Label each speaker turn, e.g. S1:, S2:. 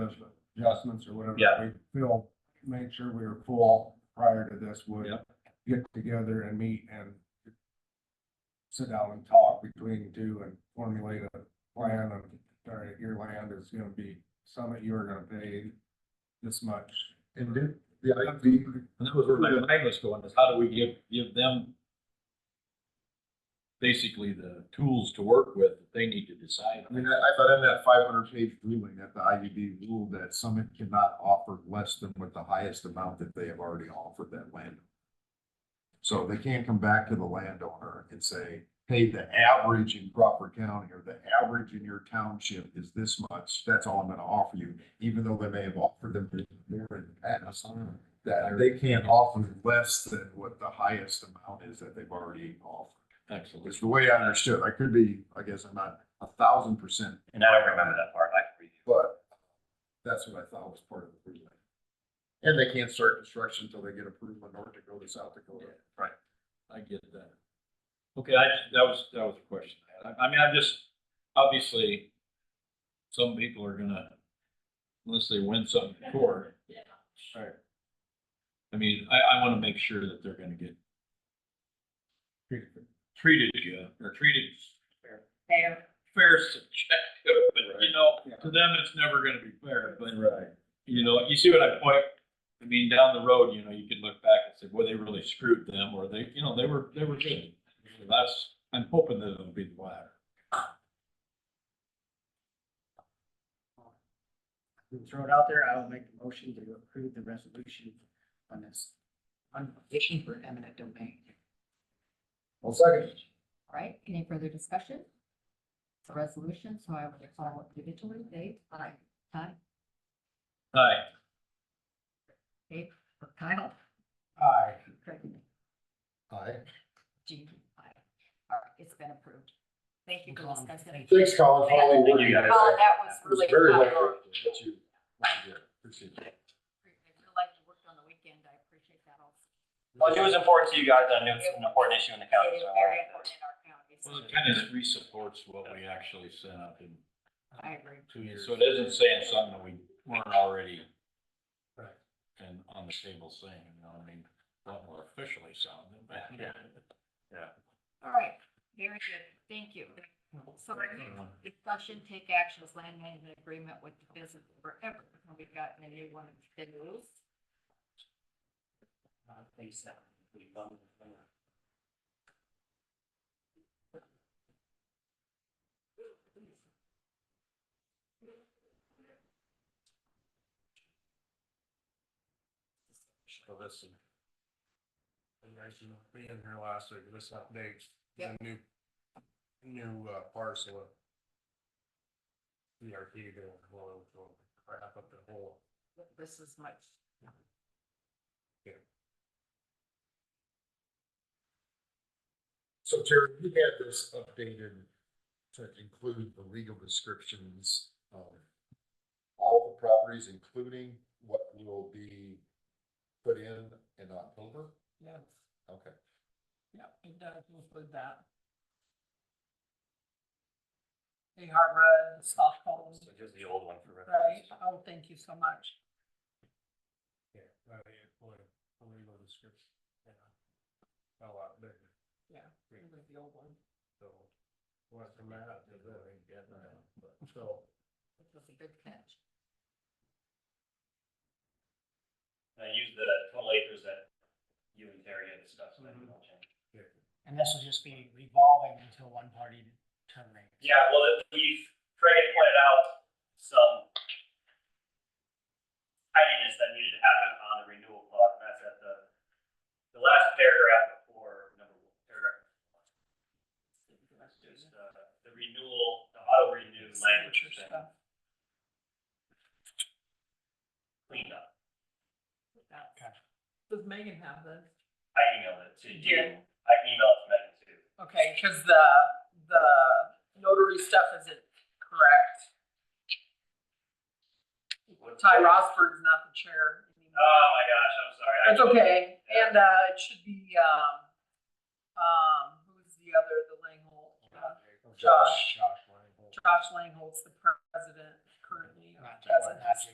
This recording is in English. S1: judgment, adjustments or whatever.
S2: Yeah.
S1: We feel, make sure we were full prior to this would
S2: Yep.
S1: get together and meet and sit down and talk between the two and formulate a plan of, all right, your land is gonna be, some that you are gonna pay this much.
S3: And do, the ID,
S2: And that was where my mind was going, is how do we give, give them basically the tools to work with that they need to decide.
S3: I mean, I, I thought in that five hundred page ruling that the IUB ruled that Summit cannot offer less than what the highest amount that they have already offered that land. So they can't come back to the landowner and say, hey, the average in Crawford County or the average in your township is this much. That's all I'm gonna offer you, even though they may have offered them more in the past. That they can't offer less than what the highest amount is that they've already offered.
S2: Excellent.
S3: It's the way I understood. I could be, I guess I'm not a thousand percent,
S4: And I don't remember that part, I can read you.
S3: but that's what I thought was part of the ruling. And they can't start construction until they get approved by North Dakota, South Dakota.
S2: I get that. Okay, I, that was, that was a question. I had. I, I mean, I'm just, obviously, some people are gonna, unless they win something in court.
S1: Right.
S2: I mean, I, I wanna make sure that they're gonna get treated, yeah, or treated
S5: Fair.
S2: fair subjective, but you know,
S1: Right.
S2: to them, it's never gonna be fair, but
S1: Right.
S2: you know, you see what I point, I mean, down the road, you know, you could look back and say, well, they really screwed them, or they, you know, they were, they were good. So That's, I'm hoping that it'll be the latter.
S6: We'll Throw it out there. I will make the motion to approve the resolution on this. On petition for eminent domain.
S3: Well, second.
S5: All right, any further discussion? It's a resolution, so I will call individually, Dave, aye, Ty,
S2: Hi,
S5: Dave, or Kyle,
S1: Aye.
S5: Craig,
S3: Aye.
S5: Jean, aye. All right, it's been approved. Thank you for discussing.
S3: Thanks, Colin. for all the work you
S5: Colin,
S3: did.
S5: that was
S3: It
S5: really.
S3: was Very
S5: helpful.
S3: helpful. What you- what you did. Appreciate it.
S5: I feel like you worked on the weekend, I appreciate that also.
S4: Well, it was important to you guys, and it was an important issue in the county,
S5: It is
S4: so. uh, I
S5: very
S4: wanted to-
S5: important in our county. so
S2: well, it kind of re-supports what we actually sent up in
S5: I agree.
S2: two years, so it isn't saying something that we weren't already
S1: Right.
S2: and on the table saying, you know, I mean, a lot more officially sounding, but yeah.
S5: All right, very good, thank you. So our next discussion, take actions, land management agreement with the business forever, and we've gotten a new one of the rules.
S6: Uh, please, uh, we bump it down.
S1: So this. And guys, you being here last week, this updates, the new, new uh, parcel of. E ERP doing a little crap up the whole.
S5: This is much.
S3: So Terry, you had this updated to include the legal descriptions of all the properties, including what will be put in in October?
S6: Yes,
S3: Okay.
S6: yep, it does include that. Hey, Harvard, Stockholm,
S4: So just the old one for
S6: right?
S4: reference.
S6: Oh, thank you so much.
S1: Yeah, uh, yeah, boy, the legal description, yeah. A lot bigger,
S6: Yeah, include the old one.
S1: so. What's the matter? So.
S5: This was a good catch.
S4: I used the total acres that you and Terry had discussed, so that
S6: Mm-hmm.
S4: we don't change.
S6: And this will just be revolving until one party terminates.
S4: Yeah, well, it- we've, Craig had pointed out some tidiness that needed to happen on the renewal clause, and that's at the, the last paragraph before number one, paragraph. one. Just, uh, the renewal, the auto renew language has been
S6: Stuff.
S4: cleaned up.
S6: Okay. Does Megan have this?
S4: I emailed it to you.
S6: Yeah.
S4: I emailed it to Megan too.
S6: Okay, because the, the notary stuff isn't correct. Ty Rosberg's not the chair. anymore.
S4: Oh my gosh, I'm sorry. I-
S6: That's okay, and, uh, it should be, um, um, who's the other, the Langhold? uh, Josh.
S1: Josh Langholz.
S6: Josh Langhold's the president currently. of Pleasant.